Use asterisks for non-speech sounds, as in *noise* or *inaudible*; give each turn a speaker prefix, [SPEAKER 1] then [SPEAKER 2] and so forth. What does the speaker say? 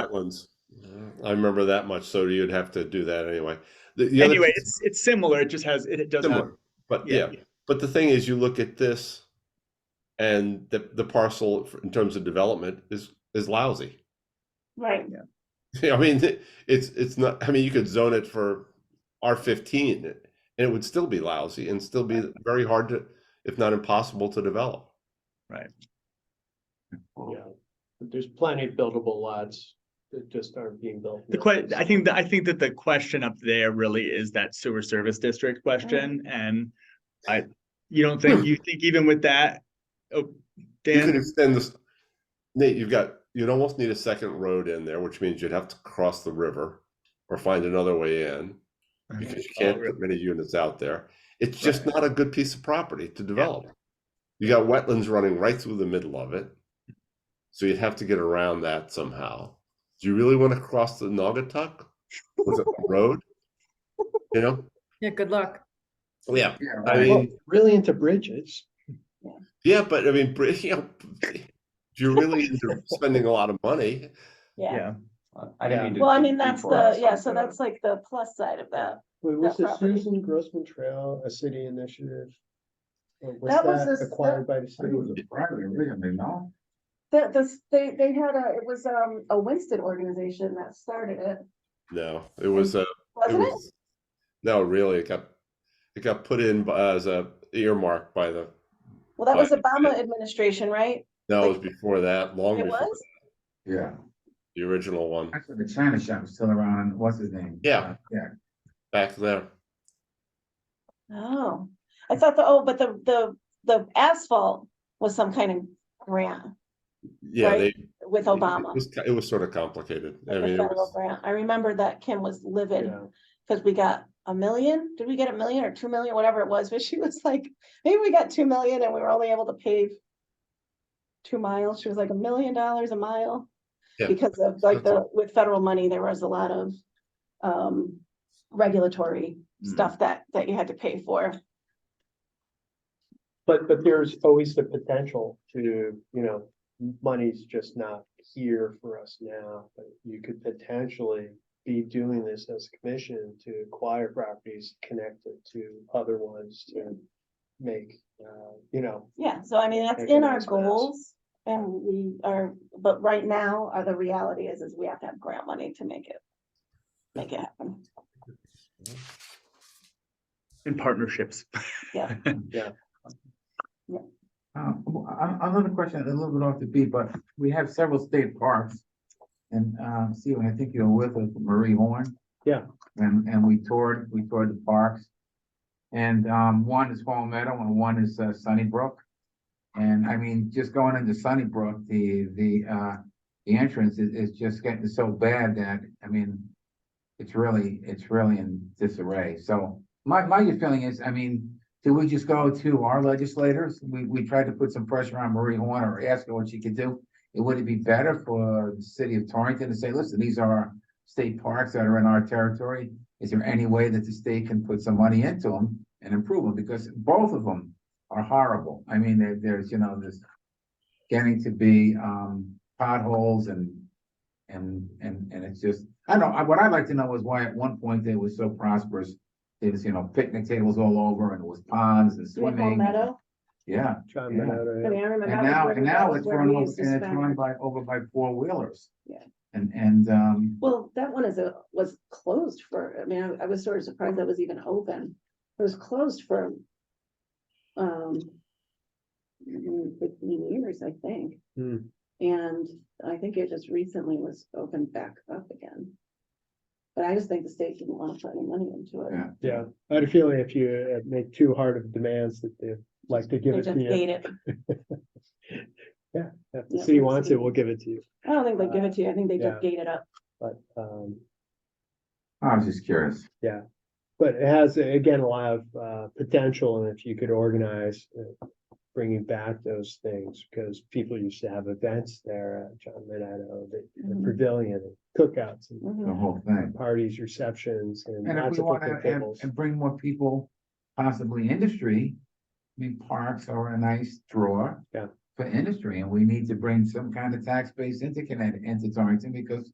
[SPEAKER 1] wetlands. Mm-hmm. I remember that much, so you'd have to do that anyway. The- the other-
[SPEAKER 2] Anyway, it's, it's similar, it just has, it it does have.
[SPEAKER 1] Similar, But yeah, but the thing is, you look at this and the, the parcel f- in terms of development is, is lousy. *laughs*
[SPEAKER 3] Right,
[SPEAKER 1] I mean, it- it's, it's not, I mean, you could zone it for R fifteen and it would still be lousy and still be very hard to, if not impossible to develop.
[SPEAKER 4] Yeah, but there's plenty of buildable lots that just aren't being built.
[SPEAKER 2] The que, I think, that I think that the question up there really is that sewer service district question, and I, you don't think, you think even with that, oh,
[SPEAKER 1] Hmm. You could
[SPEAKER 2] Dan,
[SPEAKER 1] extend this, Nate, you've got, you'd almost need a second road in there, which means you'd have to cross the river or find another way in. because you can't put many units out there. It's just not a good piece of property to develop. You got wetlands running right through the middle of it. So you'd have to get around that somehow. Do you really want to cross the Naugatuck with a *laughs* road? You know?
[SPEAKER 5] Yeah, good luck.
[SPEAKER 1] Yeah. I
[SPEAKER 4] Well,
[SPEAKER 1] mean,
[SPEAKER 4] Really into bridges.
[SPEAKER 1] yeah, but I mean, br- *laughs* you know, you're really into spending a lot of money.
[SPEAKER 3] yeah.
[SPEAKER 2] yeah,
[SPEAKER 6] Uh, I didn't mean to.
[SPEAKER 3] Well, I
[SPEAKER 6] de-
[SPEAKER 3] mean, that's
[SPEAKER 6] detour us.
[SPEAKER 3] the, yeah, so that's like the plus side of that.
[SPEAKER 4] Wait,
[SPEAKER 3] That
[SPEAKER 4] was the
[SPEAKER 3] property.
[SPEAKER 4] Susan Grossman Trail a city initiative? Or
[SPEAKER 3] That was
[SPEAKER 4] Was
[SPEAKER 3] a
[SPEAKER 4] that
[SPEAKER 3] s-
[SPEAKER 4] acquired by the
[SPEAKER 6] I think
[SPEAKER 4] city?
[SPEAKER 6] it was a private originally, no?
[SPEAKER 3] The, this, they, they had a, it was, um, a Winston organization that started it,
[SPEAKER 1] No, it was a It
[SPEAKER 3] wasn't it?
[SPEAKER 1] was- No, really, it got, it got put in b- as a earmark by the,
[SPEAKER 3] Well, that was
[SPEAKER 1] but-
[SPEAKER 3] Obama administration, right?
[SPEAKER 1] no, it was before that, long
[SPEAKER 3] It
[SPEAKER 1] before
[SPEAKER 3] was?
[SPEAKER 6] Yeah,
[SPEAKER 1] the original one,
[SPEAKER 6] actually, the China shop was still around, what's his name?
[SPEAKER 1] Yeah.
[SPEAKER 6] Uh, Yeah,
[SPEAKER 1] back there.
[SPEAKER 3] Oh, I thought the, oh, but the, the, the asphalt was some kind of grant
[SPEAKER 1] Yeah,
[SPEAKER 3] Right,
[SPEAKER 1] they.
[SPEAKER 3] with
[SPEAKER 1] it- it
[SPEAKER 3] Obama.
[SPEAKER 1] was ki- It was sort of complicated. I
[SPEAKER 3] like a
[SPEAKER 1] mean, it
[SPEAKER 3] federal
[SPEAKER 1] was,
[SPEAKER 3] grant. I remember that Kim was livid
[SPEAKER 4] Yeah.
[SPEAKER 3] because we got a million. Did we get a million or two million, whatever it was? *laughs* But she was like, maybe we got two million and we were only able to pave two miles. She was like a million dollars a mile.
[SPEAKER 1] Yeah.
[SPEAKER 3] Because of like the, with federal money, there was a lot of um regulatory
[SPEAKER 4] Mm.
[SPEAKER 3] stuff that that you had to pay for.
[SPEAKER 4] But, but there's always the potential to, you know, money's just not here for us now, but you could potentially be doing this as a commission to acquire properties connected to other ones to make, uh, you know,
[SPEAKER 3] Yeah, so I mean, that's
[SPEAKER 4] Maybe
[SPEAKER 3] in our
[SPEAKER 4] that's what it is.
[SPEAKER 3] goals. And we are, but right now, uh, the reality is, is we have to have grant money to make it. Make it happen.
[SPEAKER 2] in partnerships.
[SPEAKER 3] Yeah.
[SPEAKER 6] uh, w- a- another question, a little bit off the beat, but we have several state parks. And, um, Steve, I think you were with us, Marie Horn.
[SPEAKER 4] Yeah.
[SPEAKER 6] And, and we toured, we toured the parks. And, um, one is Fall Meadow and one is uh, Sunnybrook. And I mean, just going into Sunnybrook, the, the, uh, the entrance is, is just getting so bad that, I mean, it's really, it's really in disarray. So my, my feeling is, I mean, do we just go to our legislators? We, we tried to put some pressure on Marie Horn or ask her what she could do. It would it be better for the city of Torrington to say, listen, these are our state parks that are in our territory? Is there any way that the state can put some money into them and improve them? Because both of them are horrible. I mean, there, there's, you know, there's getting to be, um, potholes and, and, and, and it's just, I don't know, I- what I'd like to know is why at one point they were so prosperous. There was, you know, picnic tables all over and it was ponds and
[SPEAKER 3] Do we have Palmetto?
[SPEAKER 6] swimming. Yeah,
[SPEAKER 4] John
[SPEAKER 6] Yeah.
[SPEAKER 3] I
[SPEAKER 4] Minota.
[SPEAKER 3] mean, I remember.
[SPEAKER 6] and
[SPEAKER 3] that was where
[SPEAKER 6] now,
[SPEAKER 3] we-
[SPEAKER 6] and
[SPEAKER 3] that
[SPEAKER 6] now
[SPEAKER 3] was
[SPEAKER 6] it's
[SPEAKER 3] where
[SPEAKER 6] run
[SPEAKER 3] we
[SPEAKER 6] over,
[SPEAKER 3] used to
[SPEAKER 6] and it's
[SPEAKER 3] spend-
[SPEAKER 6] run by, over by four wheelers.
[SPEAKER 3] Yeah.
[SPEAKER 6] And, and, um,
[SPEAKER 3] Well, that one is a, was closed for, I mean, I- I was sort of surprised that was even open. It was closed for um mm, fifteen years, I think.
[SPEAKER 4] Hmm.
[SPEAKER 3] And I think it just recently was opened back up again. But I just think the state didn't want to put any money into it.
[SPEAKER 6] Yeah.
[SPEAKER 4] Yeah, I had a feeling if you uh, make too hard of demands that they like to give
[SPEAKER 3] They
[SPEAKER 4] it
[SPEAKER 3] just
[SPEAKER 4] to you.
[SPEAKER 3] ate it.
[SPEAKER 4] If the
[SPEAKER 3] Yeah,
[SPEAKER 4] city
[SPEAKER 3] we'll
[SPEAKER 4] wants
[SPEAKER 3] see.
[SPEAKER 4] it, we'll give it to you,
[SPEAKER 3] I don't think they'll give it to you. I think they just
[SPEAKER 4] Yeah.
[SPEAKER 3] gate it up.
[SPEAKER 4] but, um,
[SPEAKER 6] I was just curious.
[SPEAKER 4] But it has, again, a lot of uh, potential, and if you could organize uh, bringing back those things, because people used to have events there at John Minetto, the the
[SPEAKER 6] Mm-hmm.
[SPEAKER 3] Mhm.
[SPEAKER 4] pavilion, and cookouts, and
[SPEAKER 6] the
[SPEAKER 3] Mhm.
[SPEAKER 6] whole thing.
[SPEAKER 4] parties, receptions, and
[SPEAKER 6] And if
[SPEAKER 4] lots
[SPEAKER 6] we
[SPEAKER 4] of
[SPEAKER 6] wanna,
[SPEAKER 4] picnic
[SPEAKER 6] and,
[SPEAKER 4] tables.
[SPEAKER 6] and bring more people, possibly industry, I mean, parks are a nice draw.
[SPEAKER 4] Yeah.
[SPEAKER 6] For industry, and we need to bring some kind of tax base into Connecticut, into Torrington, because